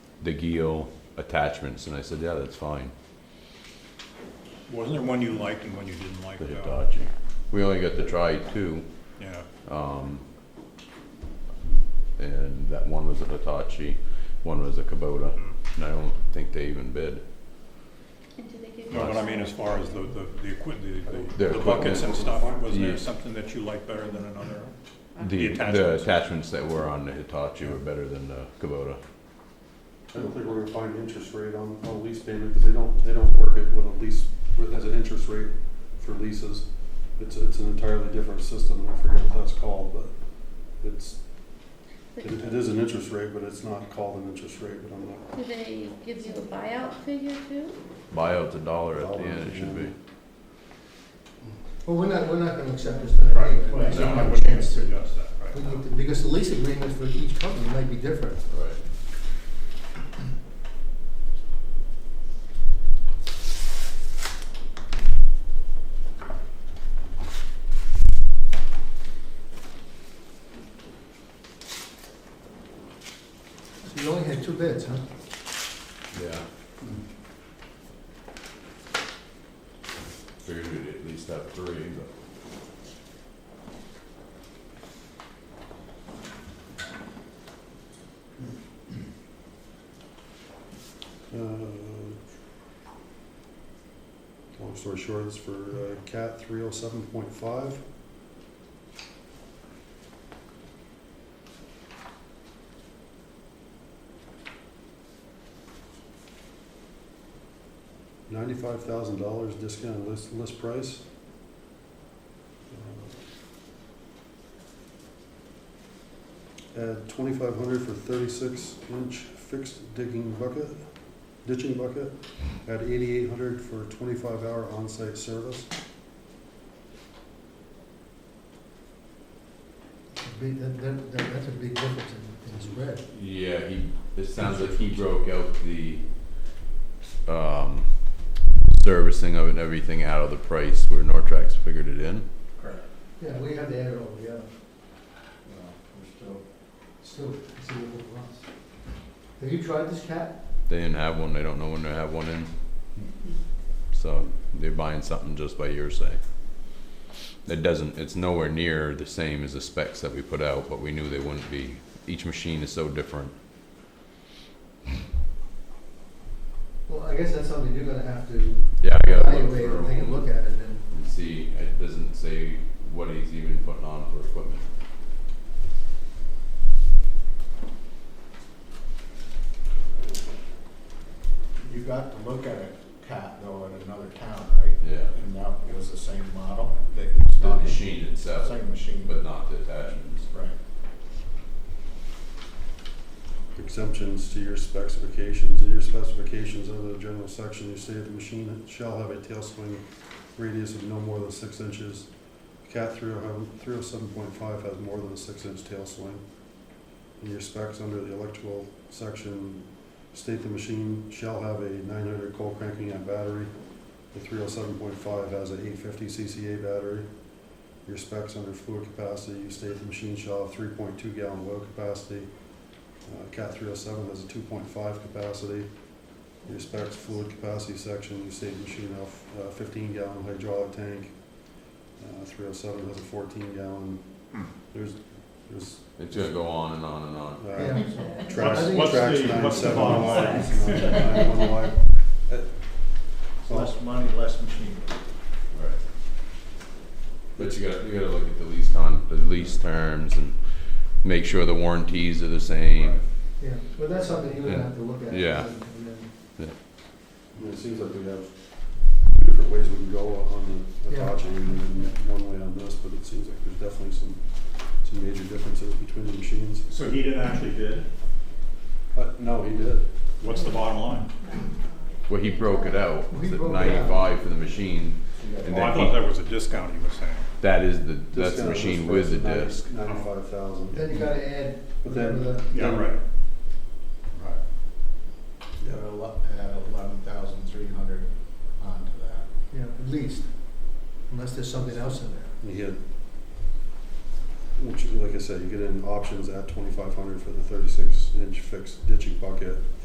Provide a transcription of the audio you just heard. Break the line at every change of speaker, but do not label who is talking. the Geo attachments, and I said, yeah, that's fine,
Wasn't there one you liked and one you didn't like?
the
though?
Hitachi. We only got to try two,
Yeah,
and that one was a Hitachi, one was a Kubota, and I don't think they even bid.
And do they give you?
no, but I mean, as far as the, the, the equipment, the,
Their
the buckets and
equipment.
stuff, was
Yeah.
there something that you liked better than another?
The,
The
the
attachments.
attachments that were on the Hitachi were better than the Kubota.
I don't think we're gonna find an interest rate on, on a lease payment, because they don't, they don't work it with a lease, with- as an interest rate for leases. It's, it's an entirely different system, and I forget what that's called, but it's,
But
it it is an interest rate, but it's not called an interest rate, but I'm not.
Do they give you a buyout figure too?
Buyout's a dollar at the end, it should be.
Well, we're not, we're not gonna accept this tonight. anyway.
Well,
We
so
don't
I
have a
wouldn't
chance to-
suggest that, right?
we need to- Because the lease agreement for each company might be different.
Right.
So you only had two bids, huh?
Yeah. Figured we'd at least have three, but.
Uh, Long story short, it's for uh, CAT three oh seven point five. Ninety-five thousand dollars discounted list, list price. Uh, Add twenty-five hundred for thirty-six inch fixed digging bucket, ditching bucket. Add eighty-eight hundred for twenty-five hour on-site service.
Big- that- that- that- That's a big difference in in spread.
Yeah, he, it sounds like he broke out the, um, servicing of it and everything out of the price where Nortrax figured it in.
Correct.
Yeah, we have to add it all together.
No, we're still,
Still, it's a little loss. Have you tried this cat?
They didn't have one, they don't know when they have one in. So they're buying something just by hearsay. It doesn't, it's nowhere near the same as the specs that we put out, but we knew they wouldn't be. Each machine is so different.
Well, I guess that's something you're gonna have to
Yeah, I gotta look
evaluate and
through
take a look at it and.
and see, it doesn't say what he's even putting on for equipment.
you got to look at a cat though in another town, right?
Yeah.
And that was the same model that he's
The
talking.
machine itself,
Same machine,
but not the attachments.
right.
exemptions to your specifications. In your specifications under the general section, you say the machine shall have a tail swing radius of no more than six inches. Cat three oh seven point five has more than a six inch tail swing. In your specs under the electrical section, state the machine shall have a nine hundred cold cranking amp battery. The three oh seven point five has a eight fifty CCA battery. Your specs under fluid capacity, you state the machine shall have three point two gallon load capacity. Uh, Cat three oh seven has a two point five capacity. Your specs fluid capacity section, you state machine off uh, fifteen gallon hydraulic tank. Uh, three oh seven has a fourteen gallon.
Hmm.
There's, there's,
It's gonna go on and on and on.
uh,
Yeah.
tracks,
I think-
What's
tracks
the-
nine,
what's the
seven,
bottom
wide,
line?
nine, one wide. Uh,
It's Less money, less machine.
Right. But you gotta, you gotta look at the lease con, the lease terms and make sure the warranties are the same.
Yeah, well, that's something you're gonna have to look at.
Yeah.
and- and then-
I mean, It seems like we have different ways we can go on the
Yeah.
Hitachi and then one way on this, but it seems like there's definitely some, some major differences between the machines.
So he didn't actually bid?
Uh, no, he did.
What's the bottom line?
Well, he broke it out,
He
it's at
broke it out.
ninety-five for the machine.
So you got-
And
Well, Oh, I
then
thought
he-
that was a discount he was saying.
That is the, that's the
Discount was
machine
for
with the
ninety-
disc.
Ninety-five thousand.
Then you gotta add
But then-
whatever the,
Yeah,
Yeah.
right. Right.
You got ele- add eleven thousand three hundred onto that.
you know, at least, unless there's something else in there.
You get, which, like I said, you get in options at twenty-five hundred for the thirty-six inch fixed ditching bucket.